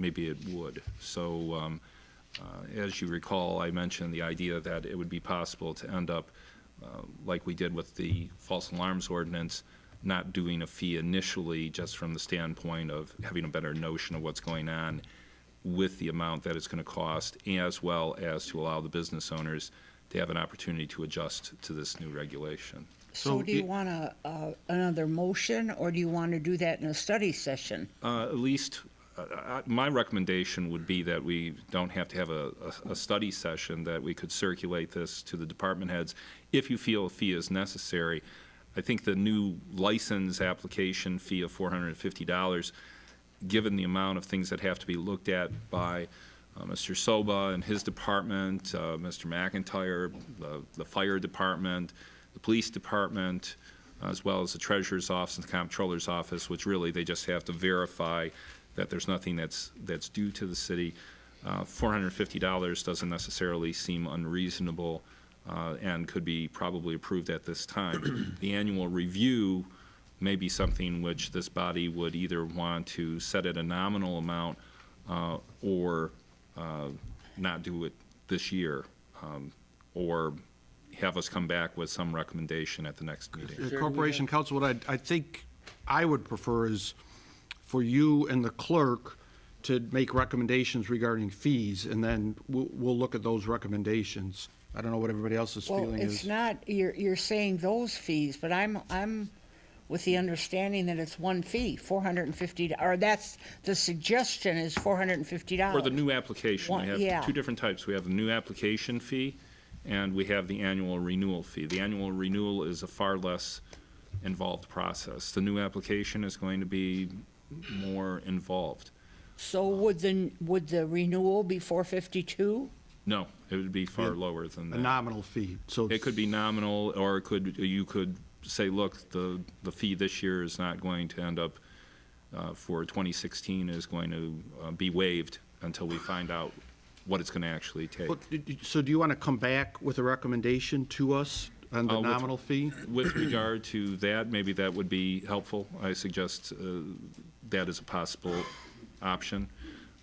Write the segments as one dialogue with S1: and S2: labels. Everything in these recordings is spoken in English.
S1: maybe it would. So um, uh, as you recall, I mentioned the idea that it would be possible to end up, uh, like we did with the false alarms ordinance, not doing a fee initially, just from the standpoint of having a better notion of what's going on with the amount that it's going to cost, as well as to allow the business owners to have an opportunity to adjust to this new regulation.
S2: So
S3: So
S2: do you
S3: it-
S2: want a, uh, another motion, or do you want to do that in a study session?
S1: Uh, At least, uh, uh, my recommendation would be that we don't have to have a, a- a study session, that we could circulate this to the department heads if you feel a fee is necessary. I think the new license application fee of $450, given the amount of things that have to be looked at by uh, Mr. Soba and his department, uh, Mr. McIntyre, the- the fire department, the police department, as well as the treasurer's office and the comptroller's office, which really, they just have to verify that there's nothing that's, that's due to the city. Uh, $450 doesn't necessarily seem unreasonable uh, and could be probably approved at this time. The annual review may be something which this body would either want to set at a nominal amount uh, or uh, not do it this year, um, or have us come back with some recommendation at the next meeting.
S3: the
S2: we
S3: Corporation Council, what I, I think I would prefer is for you and the clerk to make recommendations regarding fees, and then we'll, we'll look at those recommendations. I don't know what everybody else's
S2: Well,
S3: feeling
S2: it's
S3: is.
S2: not, you're, you're saying those fees, but I'm, I'm with the understanding that it's one fee, four hundred and fifty, or that's, the suggestion is four hundred and fifty
S1: Or
S2: dollars.
S1: the new application,
S2: One-
S1: we
S2: yeah.
S1: have two different types. We have the new application fee, and we have the annual renewal fee. The annual renewal is a far less involved process. The new application is going to be more involved.
S2: So would the, would the renewal be four fifty-two?
S1: No, it would be far lower than
S3: A
S1: that.
S3: nominal fee, so.
S1: It could be nominal, or it could, you could say, look, the, the fee this year is not going to end up, uh, for 2016 is going to uh, be waived until we find out what it's going to actually take.
S3: But did you- So do you want to come back with a recommendation to us on
S1: Uh,
S3: the
S1: with-
S3: nominal fee?
S1: With regard to that, maybe that would be helpful. I suggest uh, that as a possible option.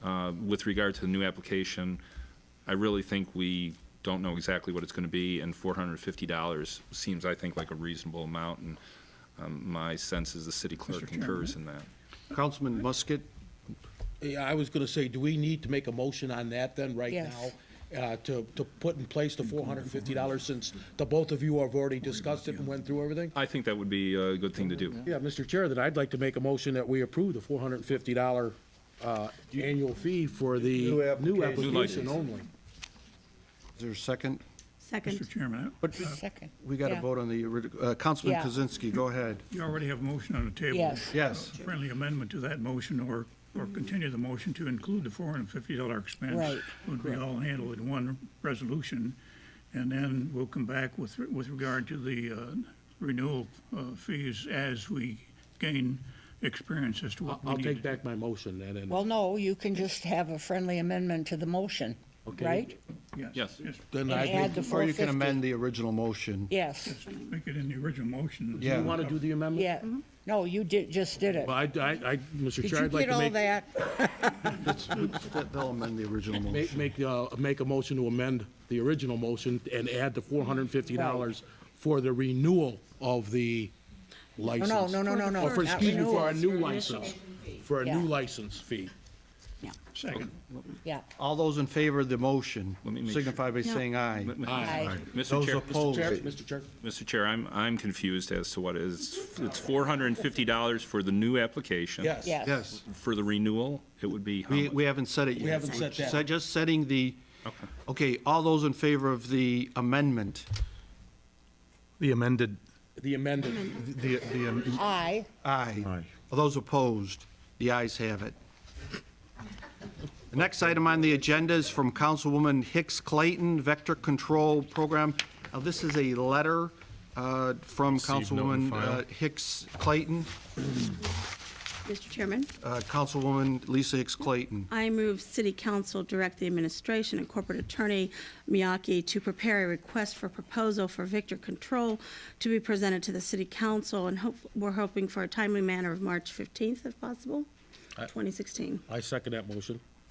S1: Uh, With regard to the new application, I really think we don't know exactly what it's going to be, and $450 seems, I think, like a reasonable amount, and um, my sense is the city clerk concurs in that.
S3: Councilman Musket,
S4: Yeah, I was gonna say, do we need to make a motion on that then, right
S2: Yes.
S4: now? Uh, to, to put in place the four hundred and fifty dollars, since the both of you have already discussed it and went through everything?
S1: I think that would be a good thing to do.
S4: Yeah, Mr. Chair, then I'd like to make a motion that we approve the four hundred and fifty dollar, uh, annual fee for the new application
S1: license.
S4: only.
S3: is there a second?
S5: Second.
S6: Mr. Chairman, I-
S3: But
S2: Second.
S3: we got to
S2: Yeah.
S3: vote on the, orig- uh, Councilman
S2: Yeah.
S3: Kozinski, go ahead.
S6: you already have a motion on the table.
S2: Yes. Mm-hmm.
S3: Yes.
S6: A Friendly amendment to that motion or, or continue the motion to include the four hundred and fifty dollar expense.
S2: Right.
S6: Would be all handled in one resolution. And then we'll come back with, with regard to the uh, renewal uh, fees as we gain experience as to
S4: I'll,
S6: what we
S4: I'll
S6: need. to
S4: take back my motion then, and
S2: Well, no, you can just have a friendly amendment to the motion,
S4: Okay.
S2: right?
S6: do.
S1: Yes.
S6: Yes,
S4: then
S2: And
S4: I,
S2: add the
S3: Or you
S2: 450.
S3: can amend the original motion.
S2: Yes,
S6: make it in the original motion.
S3: Yeah.
S4: you wanna do the amendment?
S2: yeah. No, you did, just did it.
S4: Well, I, I, I, Mr.
S2: Did
S4: Chair,
S2: you
S4: I'd like
S2: get
S4: to
S2: all
S4: make.
S2: that?
S3: They'll amend the original
S4: Make,
S3: motion.
S4: make, uh, make a motion to amend the original motion and add the four hundred and fifty dollars for the renewal of the
S2: No,
S4: license.
S2: no, no, no, no, no.
S4: Or Oh, for,
S2: not
S4: excuse me, for a
S2: renewals.
S4: new license, for a
S2: Yeah.
S4: new license fee.
S6: Second.
S2: Yeah.
S3: All those in favor of the motion
S1: Let me make sure.
S3: signify by saying aye.
S2: Aye.
S1: Mr.
S3: Those
S1: Chair.
S3: opposed,
S4: Chair, Mr. Chair,
S1: Mr. Chair, I'm, I'm confused as to what is, it's $450 for the new application.
S4: yes.
S2: Yes.
S3: yes.
S1: For the renewal, it would be how
S3: We,
S1: much?
S3: we haven't said it yet.
S4: haven't said that.
S3: So Just setting the, okay, all those in favor of the amendment,
S7: The amended,
S4: The amended,
S7: the, the, um,
S2: Aye.
S3: aye. All those opposed, the ayes have it. The next item on the agenda is from Councilwoman Hicks Clayton, Vector Control Program. Now, this is a letter uh, from
S7: Received, note and
S3: Councilwoman uh,
S7: file.
S3: Hicks Clayton,
S5: Mr. Chairman,
S3: uh, Councilwoman Lisa Hicks Clayton.
S5: I move City Council direct the administration and corporate attorney Miyake to prepare a request for proposal for Victor Control to be presented to the City Council, and hope, we're hoping for a timely manner of March 15th, if possible. 2016.
S4: I second that motion.